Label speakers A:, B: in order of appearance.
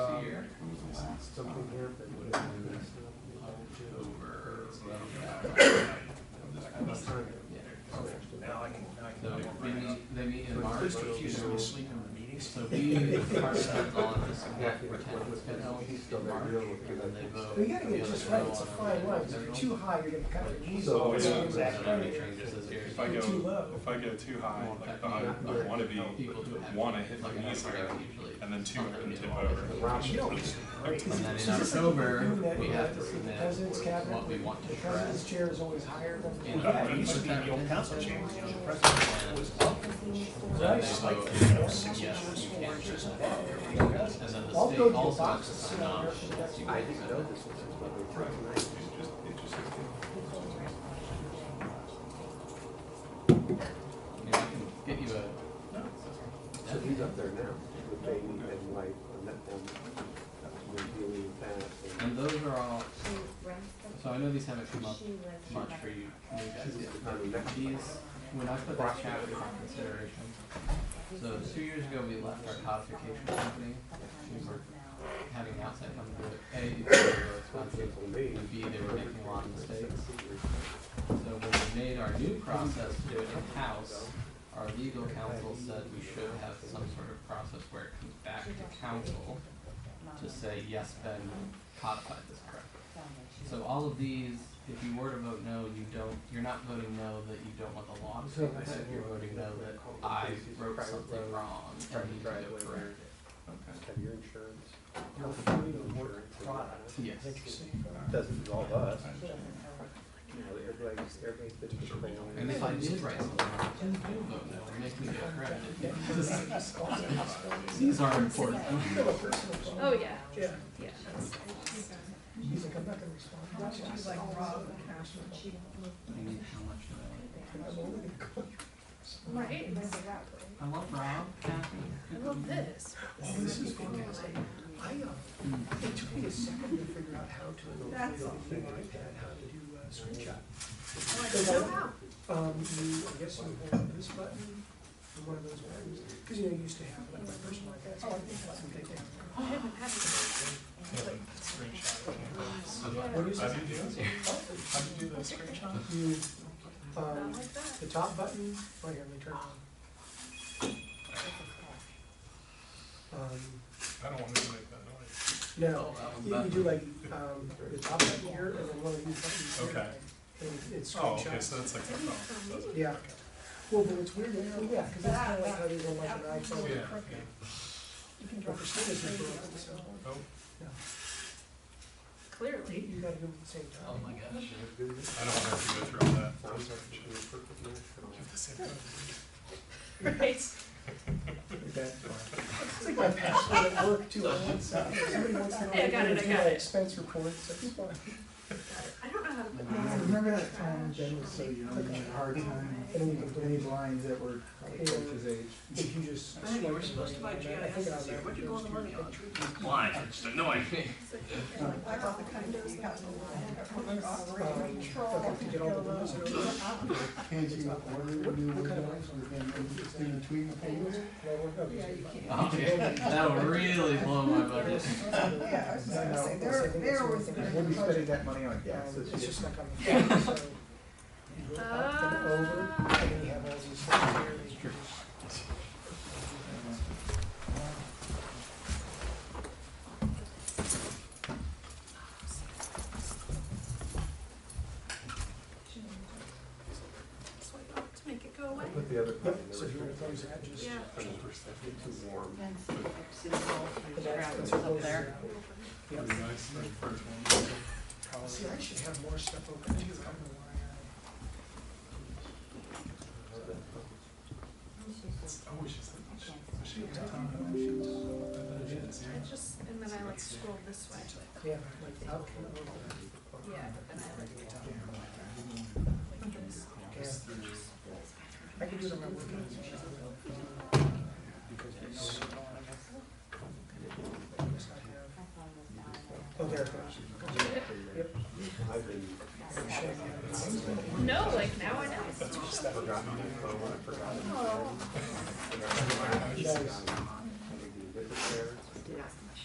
A: We gotta get it just right, it's a fine line, 'cause if you're too high, you're gonna cut your knees off, it's gonna exact right.
B: If I go, if I go too high, like I, I wanna be, wanna hit my knees higher, and then two and tip over.
A: You don't get it right.
C: And then in
A: So this is like
C: October,
A: doing that,
C: we
A: you know,
C: have to
A: this is the
C: submit
A: president's cabinet,
C: what we want to
A: The president's
C: address.
A: chair is always higher than.
C: And-
A: Yeah,
D: It used to be the old council chamber, you know, the president.
C: Then they
A: Nice.
C: vote,
A: You know,
C: yes, you can't just walk over.
A: I'll
C: And then the
A: I'll
C: state
A: go to the
C: also
A: box
C: looks
A: and
C: at
A: sit
C: the
A: down there.
C: nomination.
A: That's you.
E: I didn't know this was a public hearing.
C: I mean, I can get you a,
E: So he's up there now with baby and wife and that, and we're dealing with that.
C: and
E: and
C: those are all,
F: She runs the,
C: so I know these haven't come up
F: she lives in
C: much
F: Mexico.
C: for you, new guys
E: This
C: yet.
E: is the kind of next one.
C: These, when I put this chapter into consideration, so two years ago, we left our codification company. We were having an outside company do it. A, it's really expensive, and B, they were making a lot of mistakes. So when we made our new process to do it in-house, our legal counsel said we should have some sort of process where it comes back to council to say, yes, Ben codified this correctly. So all of these, if you were to vote no, you don't, you're not voting no that you don't want the law to be corrected, you're voting no that I wrote something wrong and need to go correct it.
E: Have your insurance. Your fleet of work product.
C: Yes.
A: Interesting.
E: Doesn't involve us. You know, everybody's, everybody's been to the family.
C: And if I did write something wrong, then do vote no and make me go correct it.
A: That's awesome.
C: These are important.
A: You have a personal phone.
G: Oh, yeah,
A: Yeah.
G: yeah.
A: He's like, I'm not gonna respond. to you." She's like, "Rob, I'm
C: I need how much do I
A: only gonna call you."
G: Right.
C: like? I love Rob, Kathy.
G: I love this.
A: Oh, this is fantastic. I, um, it took me a second to figure out how to, on my iPad, how to do uh, screenshot. Because
G: Oh,
A: I- Um, you, I guess you hold this button, and one of those buttons, because you know, you used to have like my personal iPad, so I think that's what they did.
G: I haven't had this.
A: What is
B: How
A: it?
B: do you do, it? how do you do the screenshot?
A: You,
G: Not
A: um,
G: like that.
A: the top button, right here, let me turn it on. Um,
B: I don't wanna make that noise.
C: Oh,
A: no, you can do like, um, the top button here, and then one of these buttons here.
B: Okay.
A: And it- it's
B: Oh, okay,
A: screenshots.
B: so that's like my phone. That's-
A: Yeah. Well, but it's weird, well, yeah, because that's kind of like how they don't like an iPhone.
B: Yeah, yeah.
A: But for some reason, they don't, so,
B: Oh,
A: You
G: Clearly.
A: you gotta do it at the same
C: Oh
A: time.
C: my gosh.
B: I don't wanna have to go through all that.
E: Sounds like it should be a perfect match for all.
B: Give this a go.
G: Right.
A: It's like my password at work too, I want some- somebody wants to know.
G: Hey, I got it, I
A: do
G: got
A: my
G: it.
A: Expense reports, I just want.
G: I don't know how to put this.
H: Remember that time Ben was so young and had a hard time,
A: And we can
H: any blinds that were like
A: Yeah.
H: his age?
A: If you just.
G: I think we're supposed to buy GIS this year. Where'd you go on the money on?
B: Why? Just annoying.
I: I bought the condos, got the line, operating control.
A: Okay, to get all the windows and everything.
H: Can't you order new
A: What kind of
H: windows within, in between the payments?
A: No, we're not using it.
C: Okay, that would really blow my budget.
I: Yeah, I was just gonna say, there, there was a
H: What are you spending that money on?
A: Yeah,
H: Gas?
A: Um, it's just like on the phone, so. You go up and over,
G: Uh.
A: and then you have all these things here that you just.
G: Swipe up to make it go away.
E: I put the other. part in the
A: So if you wanna close that, just.
G: Yeah.
E: It's too warm.
A: That's
I: up
A: close
I: there.
A: it out.
B: Pretty nice, that first one.
A: See, I should have more stuff open too, I don't know why I.
B: I wish it's like, I should have done that. I should have done
G: I just, and then I like scroll this way.
A: Yeah, like out and over.
G: Yeah, but then I like. like this.
A: Yeah. I can do it on my work. Because it's so long. Oh, there it goes.
E: I've been,
G: No, like now I know.
E: I forgot my phone, I forgot. it.
G: Oh.
E: I forgot it.
A: Nice.